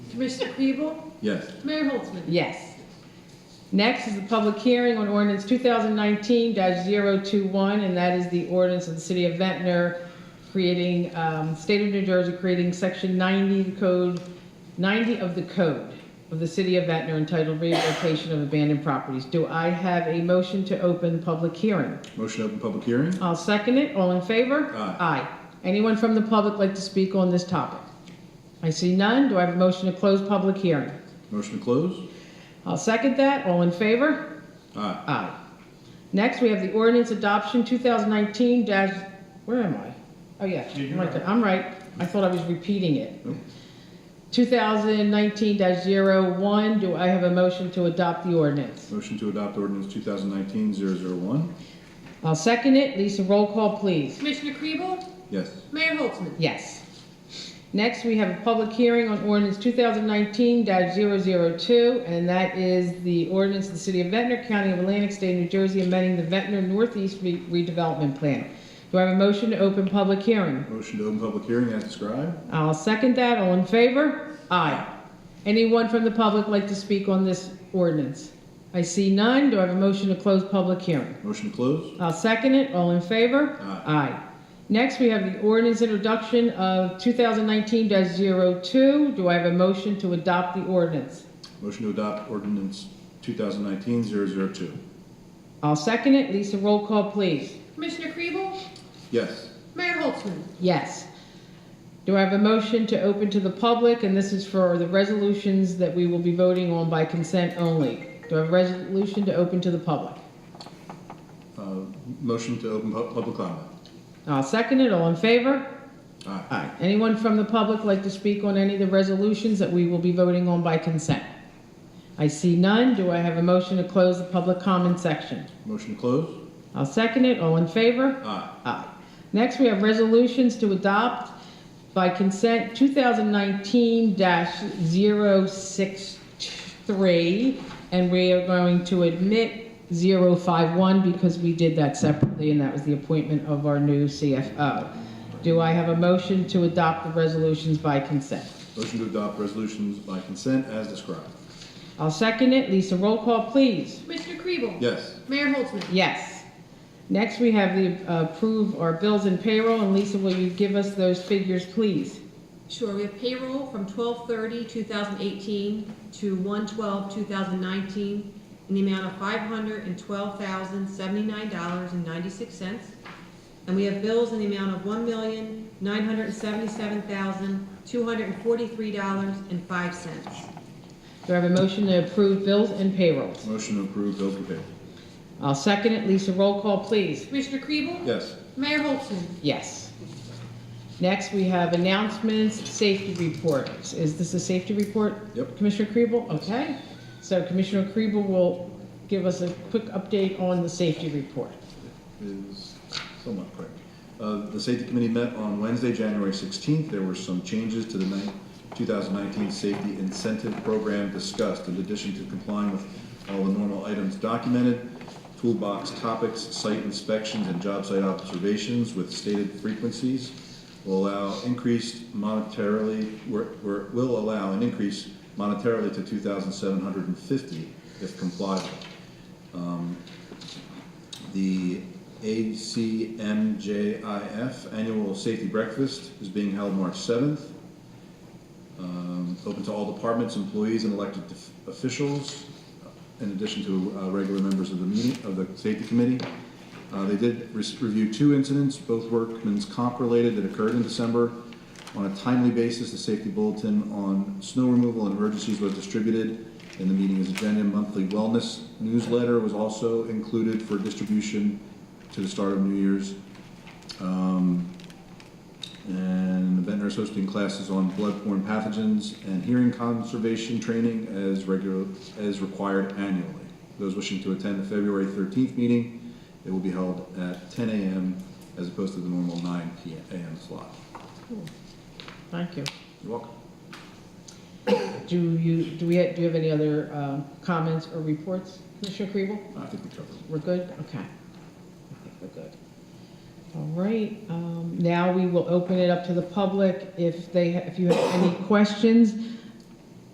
Commissioner Peeble? Yes. Mayor Holtzman? Yes. Next is the public hearing on ordinance 2019-021, and that is the ordinance of the city of Ventnor creating, um, state of New Jersey creating section 90 code, 90 of the code of the city of Ventnor entitled rehabilitation of abandoned properties. Do I have a motion to open public hearing? Motion to open public hearing? I'll second it. All in favor? Aye. Anyone from the public like to speak on this topic? I see none. Do I have a motion to close public hearing? Motion to close? I'll second that. All in favor? Aye. Aye. Next, we have the ordinance adoption 2019 dash, where am I? Oh, yeah. Micah, I'm right. I thought I was repeating it. 2019-01, do I have a motion to adopt the ordinance? Motion to adopt ordinance 2019-001? I'll second it. Lisa, roll call, please. Commissioner Peeble? Yes. Mayor Holtzman? Yes. Next, we have a public hearing on ordinance 2019-002, and that is the ordinance of the City of Ventnor, County of Atlantic, State of New Jersey, amending the Ventnor Northeast Re- redevelopment plan. Do I have a motion to open public hearing? Motion to open public hearing as described? I'll second that. All in favor? Aye. Anyone from the public like to speak on this ordinance? I see none. Do I have a motion to close public hearing? Motion to close? I'll second it. All in favor? Aye. Next, we have the ordinance introduction of 2019-02. Do I have a motion to adopt the ordinance? Motion to adopt ordinance 2019-002? I'll second it. Lisa, roll call, please. Commissioner Peeble? Yes. Mayor Holtzman? Yes. Do I have a motion to open to the public? And this is for the resolutions that we will be voting on by consent only. Do I have a resolution to open to the public? Uh, Motion to open pu- public comment? I'll second it. All in favor? Aye. Aye. Anyone from the public like to speak on any of the resolutions that we will be voting on by consent? I see none. Do I have a motion to close the public comment section? Motion to close? I'll second it. All in favor? Aye. Aye. Next, we have resolutions to adopt by consent 2019-063, and we are going to admit 051 because we did that separately, and that was the appointment of our new CFO. Do I have a motion to adopt the resolutions by consent? Motion to adopt resolutions by consent as described? I'll second it. Lisa, roll call, please. Commissioner Peeble? Yes. Mayor Holtzman? Yes. Next, we have the uh, approve our bills and payroll, and Lisa, will you give us those figures, please? Sure, we have payroll from 2018 to 2019 in the amount of five hundred and twelve thousand, seventy-nine dollars and ninety-six cents. And we have bills in the amount of one million, nine hundred and seventy-seven thousand, two hundred and forty-three dollars and five cents. Do I have a motion to approve bills and payrolls? Motion to approve bills and payroll? I'll second it. Lisa, roll call, please. Commissioner Kriebel? Yes. Mayor Holtzman? Yes. Next, we have announcements, safety reports. Is this a safety report? Yep. Commissioner Kriebel? Okay. So Commissioner Kriebel will give us a quick update on the safety report. is somewhat quick. Uh, The safety committee met on Wednesday, January 16th. There were some changes to the nine- 2019 safety incentive program discussed. In addition to complying with all the normal items documented, toolbox topics, site inspections, and job site observations with stated frequencies will allow increased monetarily, were- were- will allow an increase monetarily to 2,750 if complied with. The ACMJIF Annual Safety Breakfast is being held March 7th. Um, Open to all departments, employees, and elected of- officials, in addition to uh, regular members of the meeting, of the safety committee. Uh, They did re- review two incidents, both workman's comp related, that occurred in December. On a timely basis, the safety bulletin on snow removal and emergencies was distributed, and the meeting's agenda monthly wellness newsletter was also included for distribution to the start of New Year's. Um, And Ventnor is hosting classes on bloodborne pathogens and hearing conservation training as regular, as required annually. Those wishing to attend the February 13th meeting, it will be held at 10 a.m. as opposed to the normal 9 p.m. a.m. slot. Thank you. You're welcome. Do you, do we, do you have any other uh, comments or reports, Commissioner Kriebel? I think we covered it. We're good? Okay. I think we're good. All right, um, now we will open it up to the public. If they, if you have any questions,